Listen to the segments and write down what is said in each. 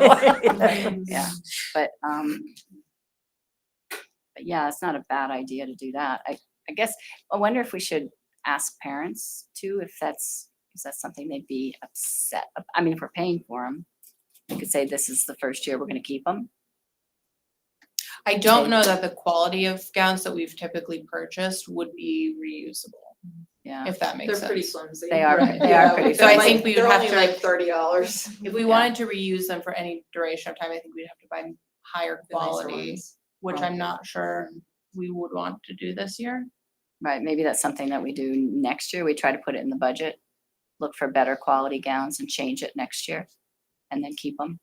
so. Yeah, but, um, but yeah, it's not a bad idea to do that. I, I guess, I wonder if we should ask parents too, if that's, is that something they'd be upset? ab- I mean, if we're paying for them, we could say this is the first year we're gonna keep them. I don't know that the quality of gowns that we've typically purchased would be reusable, Yeah, if that makes sense. They're pretty flimsy. They are- right? they are Yeah, pretty they're flimsy. like- I think we would they're have only to- like thirty dollars. If we Yeah. wanted to reuse them for any duration of time, I think we'd have to buy higher quality, which Right. I'm not sure we would want to do this year. right, maybe that's something that we do next year. We try to put it in the budget. Look for better quality gowns and change it next year and then keep them.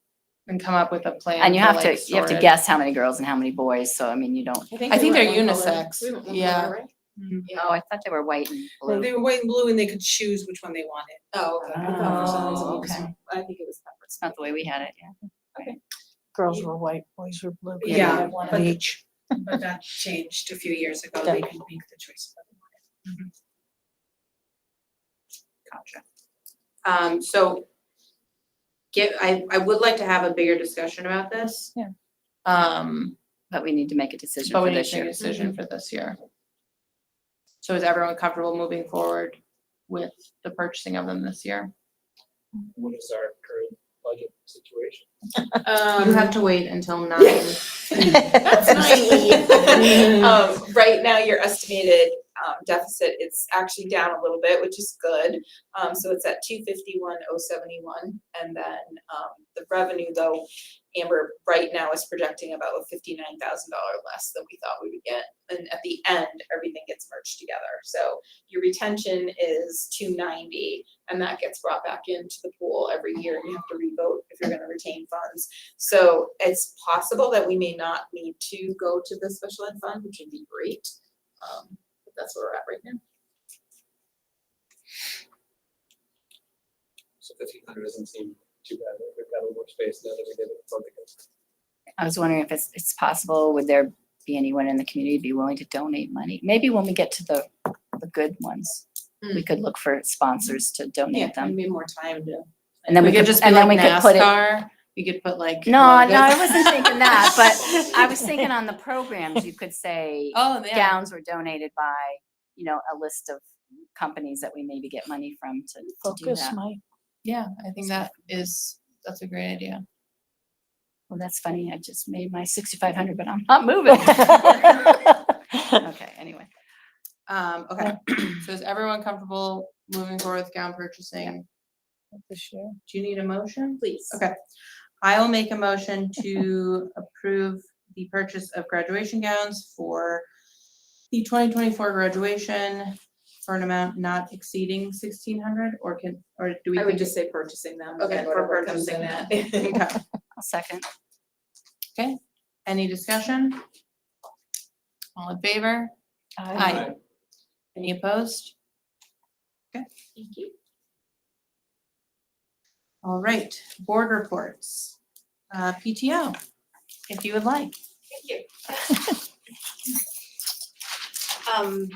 and come up with a plan. And you for, have to, like, you have to storage. guess how many girls and how many boys, so I mean, you don't. I think we they're went one color. unisex, We went one yeah. color, right? Oh, I thought they were white and blue. They were white and blue and they could choose which one they wanted. Oh, okay. I thought for some reason Oh, it was- okay. I think it was pepper. It's not the way we had it, yeah. Girls were white, boys were blue. Yeah, Yeah, One but- of each. But that changed a few years ago. They could make the choice. of what they wanted. Gotcha. Um, so get, I, I would like to have a bigger discussion about this. Um, But we need to make a decision but for we need to this make a year. decision for this year. So is everyone comfortable moving forward with the purchasing of them this year? what is our current budget situation? Um, You have to wait until nine. That's Um, right now, your estimated, um, deficit, it's actually down a little bit, which is good. Um, so it's at two fifty-one oh seventy-one, and then, um, the revenue though, Amber right now is projecting about a fifty-nine thousand dollar less than we thought we would get. And at the end, everything gets merged together, so your retention is two ninety, and that gets brought back into the pool every year, and you have to revote if you're gonna retain funds. So it's possible that we may not need to go to the special ed fund, which would be great. Um, but that's where we're at right now. So fifteen hundred doesn't seem too bad, we've got a little more space now that we did it with something else. I was wondering if it's, it's possible, would there be anyone in the community be willing to donate money? Maybe when we get to the, the good ones, Hmm. we could look for sponsors to donate them. Maybe more time to. And then we could, and then we could put it. NASCAR, we could put like. No, no, I logos. wasn't thinking that, but I was thinking on the programs, you could say Oh, yeah, gowns were donated by, you know, a list of companies that we maybe get money from to to do Focus, that. Mike. yeah, I think that is, that's a great idea. Well, that's funny. I just made my sixty-five hundred, but Oh. I'm not moving. Okay, anyway. Um, okay, so is everyone comfortable moving forward with gown purchasing? This year. Do you need a motion? Please. Okay. I will make a motion to approve the purchase of graduation gowns for the twenty twenty-four graduation for an amount not exceeding sixteen hundred, or can, or do we? I would think- just say purchasing them. Okay, and whatever for comes in that. Okay, I'll second. any discussion? All in favor? Aye. Any opposed? Thank you. All right, board reports, uh, PTO, if you would like. Thank you. Um,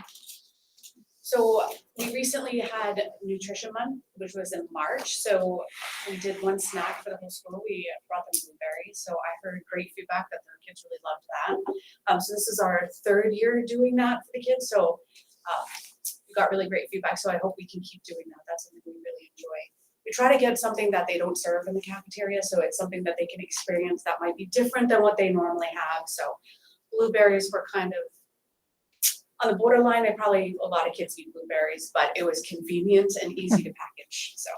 so we recently had nutrition month, which was in March, so we did one snack for the whole school, we brought them blueberries, so I heard great feedback that the kids really loved that. Um, so this is our third year doing that for the kids, so, uh, we got really great feedback, so I hope we can keep doing that, that's something we really enjoy. We try to get something that they don't serve in the cafeteria, so it's something that they can experience that might be different than what they normally have, so blueberries were kind of on the borderline, I probably, a lot of kids eat blueberries, but it was convenient and easy to package, so.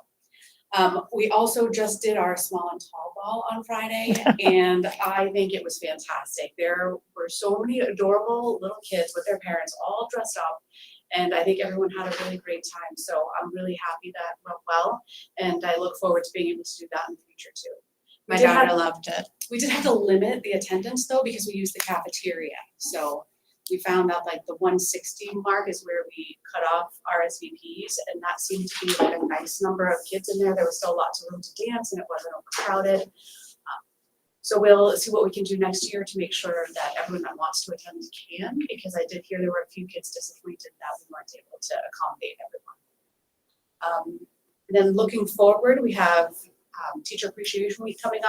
Um, we also just did our small and tall ball on Friday, and I think it was fantastic. There were so many adorable little kids with their parents all dressed up. And I think everyone had a really great time, so I'm really happy that went well, and I look forward to being able to do that in the future too. We My did have- daughter loved it. we did have to limit the attendance though, because we used the cafeteria, so we found out like the one sixty mark is where we cut off RSVPs, and that seemed to be like a nice number of kids in there, there was still lots of room to dance, and it wasn't overcrowded. Um, So we'll see what we can do next year to make sure that everyone that wants to attend can, because I did hear there were a few kids disappointed that we weren't able to accommodate everyone. Um, and then looking forward, we have um, teacher appreciation week coming up.